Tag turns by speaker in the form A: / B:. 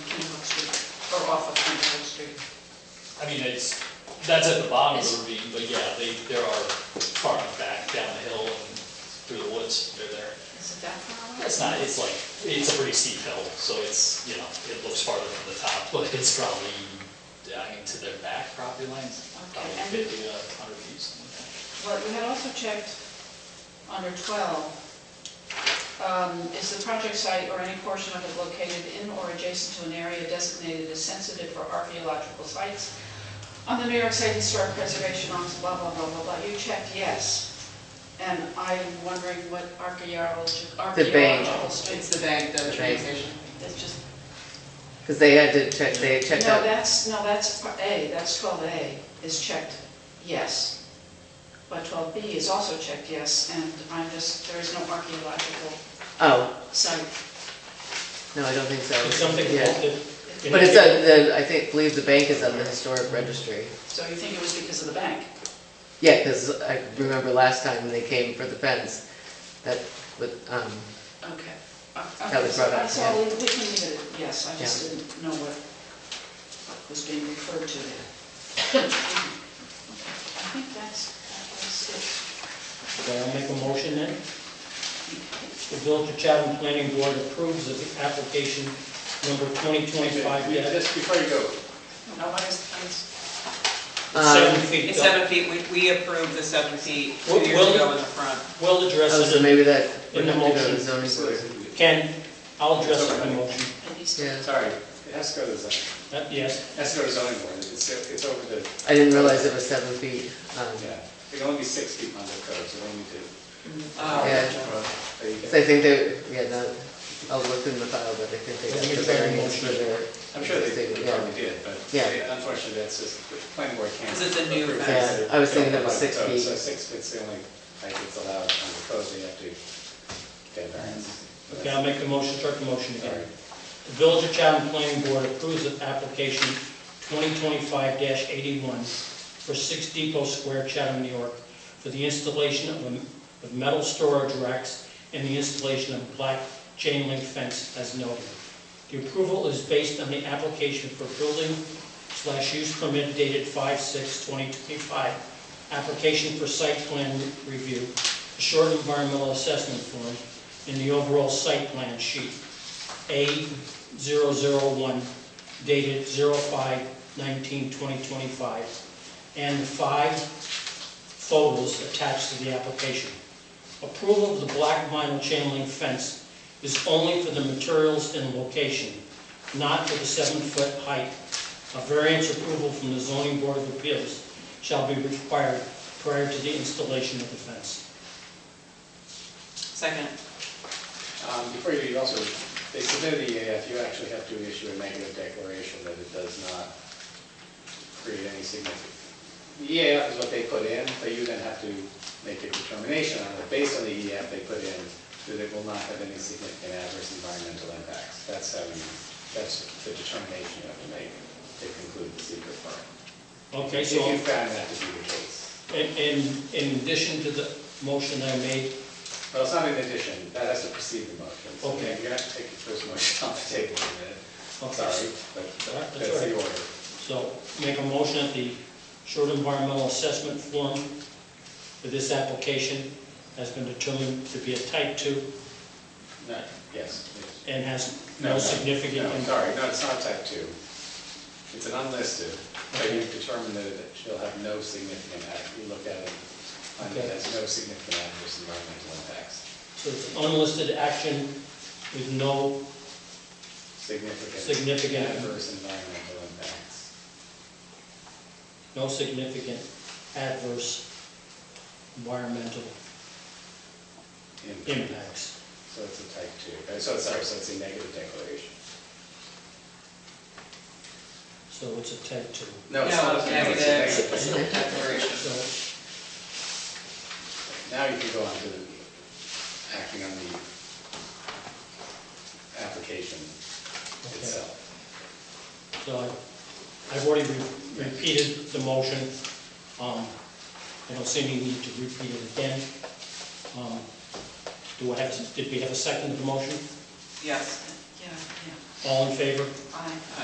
A: off of Stevenson Street.
B: I mean, it's, that's at the bottom of the ravine, but yeah, they, there are far enough back, down the hill and through the woods, they're there.
A: Is it that far away?
B: It's not, it's like, it's a pretty steep hill, so it's, you know, it looks farther from the top, but it's probably, I mean, to their back property lines, probably
A: Okay, and-
B: fifty to hundred feet, something
A: Well, we had also checked under 12, um, is the project site or any portion of it located in or adjacent to an area designated as sensitive for archaeological sites? On the New York State Historic Preservation Office, blah, blah, blah, blah, blah, you checked yes. And I'm wondering what archaeological,
C: The bank.
A: archaeological
D: It's
A: streets,
D: the bank, the
C: The
D: train
C: bank.
D: station.
A: that's just,
C: Because they had to check, they
A: no,
C: checked out,
A: that's, no, that's part A, that's 12A is checked yes. But 12B is also checked yes, and I'm just, there is no archaeological
C: oh,
A: site
C: no, I don't think so.
B: like that. It's something
C: Yeah.
B: that,
C: But it's, on the- I think, believe the bank is on the historic registry.
A: So you think it was because of the bank?
C: Yeah, because I remember last time when they came for the fence, that with, um,
A: Okay. Uh,
C: That was brought up,
A: So
C: yeah.
A: we we can leave it, at yes, I just didn't know what was being referred to there. Okay, I think that's, that was it.
E: Okay, I'll make a motion then. The Village of Chatham Planning Board approves of the application number
F: Okay, we-
E: 2025-7
F: Just before you go,
A: No, what is, what is-
C: um,
E: feet.
D: It's seven feet, we, we approved the seven feet two
E: Well,
D: years
E: well-
D: ago in the front.
E: We'll address
C: oh, so
E: it,
C: maybe that would
E: in the
C: have to go to
E: motion.
C: zoning board.
E: in- Ken, I'll address it in the motion.
A: it needs to-
C: Yeah,
F: sorry, it has to go to zoning, it
E: Uh, Yes,
F: has to go to zoning board, it's, it's over the,
C: I didn't realize it was seven feet. um,
F: yeah, it can only be six feet under code, so we need to.
D: Um,
C: Yeah.
F: There you
C: So I
F: go.
C: think they, yeah, no, I'll look in the file, but I think they got the variance for their.
F: I'm sure they they
C: Yeah.
F: probably did, but
C: Yeah.
F: they- unfortunately, that's just, the planning board can't.
D: Is it the new
F: approve
D: fence?
F: that.
C: Yeah, I was thinking that was
F: They
C: six
F: don't have
C: feet.
F: code, Oh, So six feet's the only height that's allowed under code, they have to get variance. So
E: okay, I'll
F: that's-
E: make the motion, start the motion
F: all
E: again.
F: right.
E: The Village of Chatham Planning Board approves of application 2025-81 for 6 Depot Square, Chatham, New York, for the installation of a- of metal storage racks and the installation of black chain link fence as noted. The approval is based on the application for building slash use permit dated 5/6/2025, application for site plan review, a short environmental assessment form, and the overall site plan sheet. A001 dated 05/19/2025, and the five photos attached to the application. Approval of the black vinyl chain link fence is only for the materials and location, not for the seven-foot height. A variance approval from the zoning board of appeals shall be required prior to the installation of the fence.
D: Second,
F: Um, Before you, you also, they submitted the EAF, you actually have to issue a negative declaration that it does not create any significant. The EAF is what they put in, but you then have to make a determination on it, based on the EAF they put in, that it will not have any significant adverse environmental impacts. That's how you, that's the determination you have to make to conclude the secret part.
E: Okay,
F: If
E: so...
F: you found that to be the case.
E: In, in- in addition to the motion I made,
F: Well, it's not in addition, that has to precede the motion. So
E: Okay.
F: You're gonna have to take your first motion off the table in a minute. I'm
E: Okay.
F: sorry, but
E: That's
F: that's
E: all
F: the
E: right.
F: order.
E: so make a motion that the short environmental assessment form for this application has been determined to be a type two
F: No, yes. yes.
E: and has no significant
F: No,
E: impact.
F: sorry, no, it's not type two. It's an unlisted, but you've determined that it shall have no significant impact. You look at it, find that it has no significant adverse environmental impacts.
E: So it's unlisted action with no,
F: Significant.
E: Significant.
F: Adverse environmental impacts.
E: no significant adverse environmental
F: Impact.
E: impacts.
F: So it's a type two, Uh, so, sorry, so it's a negative declaration.
E: So it's a type two.
D: no,
F: No, it's not. a- it's a
D: negative,
F: negative declaration.
D: declaration.
E: So,
F: Now you can go on to the- acting on the application itself.
E: so I- I've already re- repeated the motion. Um, I don't see any need to repeat it again. Um, Do I have, did we have a second to the motion?
D: Yes,
A: Yeah, yeah,
E: All in favor?
A: I,